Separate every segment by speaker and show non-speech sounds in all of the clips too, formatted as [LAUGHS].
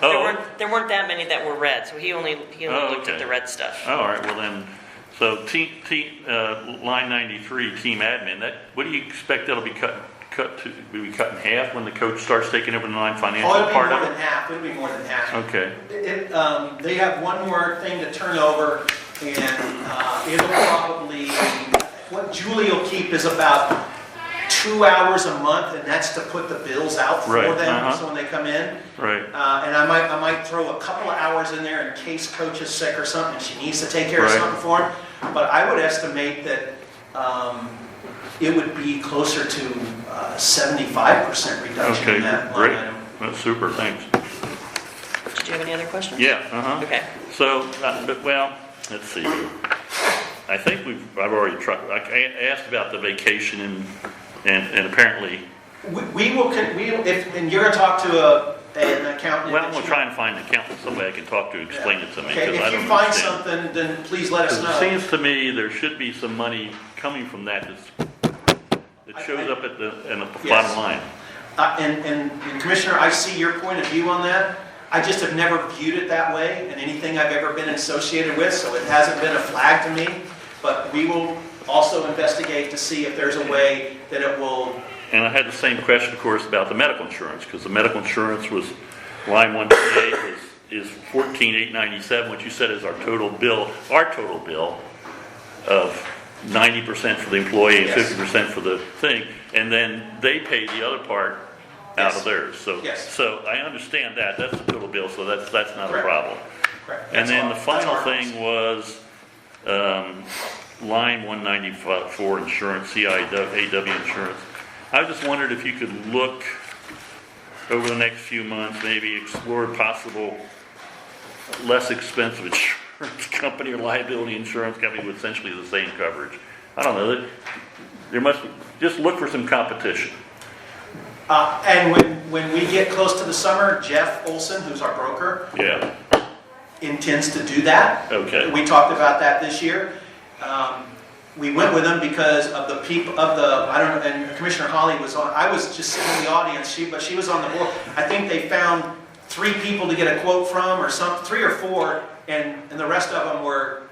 Speaker 1: There
Speaker 2: Oh.
Speaker 1: weren't, there weren't that many that were red, so he only, he
Speaker 2: Oh,
Speaker 1: only looked at
Speaker 2: okay.
Speaker 1: the red stuff.
Speaker 2: Oh, all right, well then, so team, team, uh, line ninety-three, team admin, that, what do you expect that'll be cut, cut to, will be cut in half when the coach starts taking over the line financial
Speaker 3: Oh, it'll be
Speaker 2: part
Speaker 3: more
Speaker 2: of
Speaker 3: than
Speaker 2: it?
Speaker 3: half, it'll be more than half.
Speaker 2: Okay,
Speaker 3: It, um, they have one more thing to turn over, and, uh, it'll probably, what Julie will keep is about two hours a month, and that's to put the bills out for
Speaker 2: Right,
Speaker 3: them,
Speaker 2: uh-huh.
Speaker 3: so when they come in.
Speaker 2: right,
Speaker 3: Uh, and I might, I might throw a couple of hours in there in case coach is sick or something, and she needs to take care of
Speaker 2: Right.
Speaker 3: something for him. But I would estimate that, um, it would be closer to uh, seventy-five percent reduction
Speaker 2: okay,
Speaker 3: in that line
Speaker 2: great,
Speaker 3: item.
Speaker 2: that's super, thanks.
Speaker 1: Did you have any other questions?
Speaker 2: Yeah, uh-huh.
Speaker 1: Okay.
Speaker 2: So, uh, but, well, let's see. I think we've, I've already tried, I I asked about the vacation and, and, and apparently,
Speaker 3: We, we will, con- we, will- if, and you're gonna talk to a, an accountant.
Speaker 2: well, we'll try and find an accountant, somebody I can talk to, explain it to me,
Speaker 3: Okay,
Speaker 2: because I
Speaker 3: if you
Speaker 2: don't
Speaker 3: find
Speaker 2: understand.
Speaker 3: something, then please let us
Speaker 2: Because it
Speaker 3: know.
Speaker 2: seems to me there should be some money coming from that that's, that shows up at the, in the
Speaker 3: Yes.
Speaker 2: bottom line.
Speaker 3: Uh, and, and and Commissioner, I see your point of view on that. I just have never viewed it that way in anything I've ever been associated with, so it hasn't been a flag to me. But we will also investigate to see if there's a way that it will,
Speaker 2: And I had the same question, of course, about the medical insurance, because the medical insurance was, line one twenty-eight is, is fourteen eight ninety-seven, which you said is our total bill, our total bill of ninety percent for the employee and
Speaker 3: Yes.
Speaker 2: fifty percent for the thing, and then they pay the other part out of
Speaker 3: Yes.
Speaker 2: theirs, so.
Speaker 3: Yes.
Speaker 2: So I understand that, that's the total bill, so that's, that's not a
Speaker 3: Correct.
Speaker 2: problem.
Speaker 3: correct?
Speaker 2: And
Speaker 3: that's
Speaker 2: then
Speaker 3: all-
Speaker 2: the
Speaker 3: that's
Speaker 2: final
Speaker 3: our-
Speaker 2: thing was, um, line one ninety-four insurance, CIAW insurance. I just wondered if you could look over the next few months, maybe explore possible less expensive [LAUGHS] insurance company or liability insurance company with essentially the same coverage. I don't know, that- there must, just look for some competition.
Speaker 3: Uh, and when, when we get close to the summer, Jeff Olson, who's our broker,
Speaker 2: Yeah,
Speaker 3: intends to do that.
Speaker 2: okay,
Speaker 3: We talked about that this year. Um, We went with them because of the peop, of the, I don't know, and Commissioner Holly was on, I was just sitting in the audience, she, but she was on the board. I think they found three people to get a quote from or some, three or four, and, and the rest of them were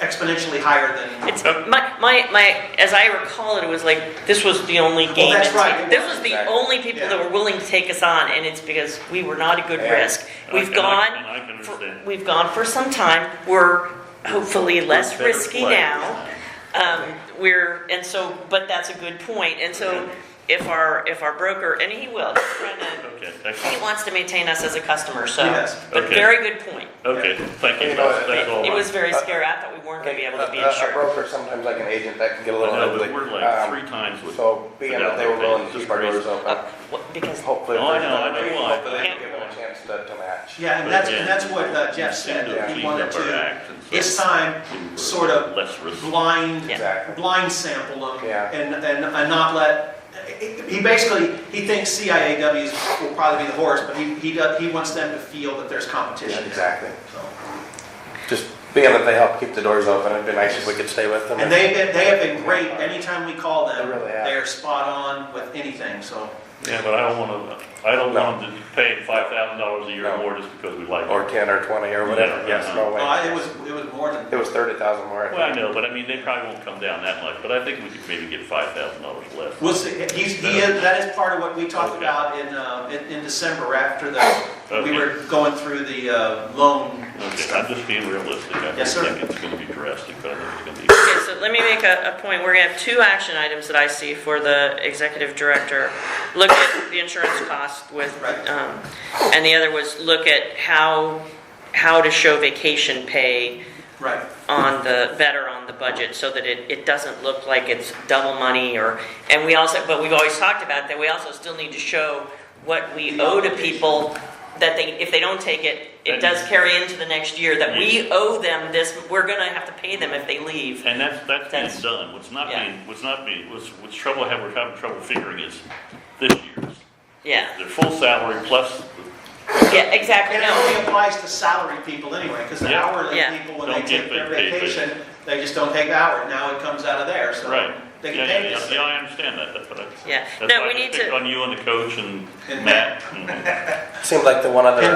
Speaker 3: exponentially higher than.
Speaker 1: It's, my, my, my, as I recall it, it was like, this was the only game.
Speaker 3: that's
Speaker 1: in
Speaker 3: right,
Speaker 1: town.
Speaker 3: it
Speaker 1: This
Speaker 3: was,
Speaker 1: was the
Speaker 4: exactly.
Speaker 1: only people that
Speaker 3: Yeah.
Speaker 1: were willing to take us on, and it's because we were not a good
Speaker 4: Yeah.
Speaker 1: risk.
Speaker 2: I
Speaker 1: We've
Speaker 2: can- I can-
Speaker 1: gone,
Speaker 2: I can
Speaker 1: for-
Speaker 2: understand.
Speaker 1: we've gone for some time, we're hopefully less
Speaker 2: better
Speaker 1: risky
Speaker 2: play.
Speaker 1: now. Um, we're, and so, but that's a good point, and so if our, if our broker, and he will, he's trying to-
Speaker 2: okay,
Speaker 1: he
Speaker 2: excellent,
Speaker 1: wants to maintain us as a customer, so.
Speaker 3: Yes.
Speaker 1: But
Speaker 2: Okay.
Speaker 1: very good point.
Speaker 2: okay, thank you, that's, that's all.
Speaker 1: It
Speaker 2: I-
Speaker 1: was very
Speaker 3: Uh,
Speaker 1: scary, I thought we weren't gonna be able to be
Speaker 4: A- a- A
Speaker 1: insured.
Speaker 4: broker, sometimes like an agent, that can get a
Speaker 2: I
Speaker 4: little
Speaker 2: know,
Speaker 4: ugly.
Speaker 2: but we're like
Speaker 4: Um,
Speaker 2: three times what.
Speaker 4: So being that they were willing to keep our doors
Speaker 1: Uh,
Speaker 4: open,
Speaker 1: what- Because
Speaker 4: hopefully.
Speaker 2: Oh, I know, I know why.
Speaker 4: Hopefully they can give them a chance to, to match.
Speaker 3: Yeah, and that's, and that's what uh, Jeff said, that he wanted to, this time, sort of
Speaker 2: Less risk.
Speaker 3: blind
Speaker 1: Yeah.
Speaker 4: Exactly.
Speaker 3: blind sample them
Speaker 4: Yeah.
Speaker 3: and, and, and not let, he basically, he thinks CIAWs will probably be the horse, but he, he does, he wants them to feel that there's
Speaker 4: Yeah,
Speaker 3: competition.
Speaker 4: Exactly.
Speaker 3: So,
Speaker 4: Just being that they help keep the doors open, it'd be nice if we could stay with them.
Speaker 3: And they, they have been great, anytime we call them,
Speaker 4: They really have.
Speaker 3: they are spot on with anything, so.
Speaker 2: Yeah, but I don't wanna, I don't want them to pay five thousand dollars a year
Speaker 4: No.
Speaker 2: more just because we like
Speaker 4: Or
Speaker 2: it.
Speaker 4: ten or twenty or whatever,
Speaker 2: Yeah,
Speaker 4: yes,
Speaker 2: uh-huh.
Speaker 4: no
Speaker 3: No, I- uh, it
Speaker 4: way.
Speaker 3: was, it was more than,
Speaker 4: Oh, It was thirty thousand more. I
Speaker 2: Well, I
Speaker 4: think.
Speaker 2: know, but I mean, they probably won't come down that much, but I think we could maybe get five thousand dollars less.
Speaker 3: we'll see, he's, he is, that is part of what we talked
Speaker 2: Okay.
Speaker 3: about in, uh, in, in December after the, we
Speaker 2: Okay.
Speaker 3: were going through the, uh, loan
Speaker 2: Okay, I'm just being realistic, I don't
Speaker 3: Yes, sir.
Speaker 2: think it's gonna be drastic, but I think it's gonna
Speaker 1: Okay, so let me make a, a point. We're gonna have two action items that I see for the executive director. Look at the insurance cost with,
Speaker 3: Right.
Speaker 1: um, and the other was look at how, how to show vacation pay
Speaker 3: Right.
Speaker 1: on the, better on the budget so that it, it doesn't look like it's double money or, and we also, but we've always talked about that we also still need to show what we owe to people that they, if they don't take it,
Speaker 2: That-
Speaker 1: it does carry into the next year, that we owe them this, we're gonna have to pay them if they leave.
Speaker 2: be. And that's, that's being
Speaker 1: That's-
Speaker 2: done, what's not
Speaker 1: yeah.
Speaker 2: being, what's not being, what's, what's trouble, I have, we're having trouble figuring is this year's.
Speaker 1: Yeah,
Speaker 2: Their full salary plus,
Speaker 1: yeah, exactly,
Speaker 3: And it only
Speaker 1: no.
Speaker 3: applies to salary people anyway, because the
Speaker 2: Yeah.
Speaker 3: hourly
Speaker 1: Yeah.
Speaker 3: people, when they
Speaker 2: Don't get
Speaker 3: take their
Speaker 2: paid, paid, paid.
Speaker 3: vacation, they just don't take the hour, now it comes out of there, so
Speaker 2: right.
Speaker 3: they can
Speaker 2: Yeah, yeah,
Speaker 3: pay
Speaker 2: yeah,
Speaker 3: this.
Speaker 2: Yeah, I understand that, that's what I.
Speaker 1: Yeah.
Speaker 2: that's
Speaker 1: No,
Speaker 2: why
Speaker 1: we
Speaker 2: I
Speaker 1: need
Speaker 2: picked
Speaker 1: to-
Speaker 2: On you and the coach and
Speaker 3: And
Speaker 2: Matt. and-
Speaker 4: Seemed like the one other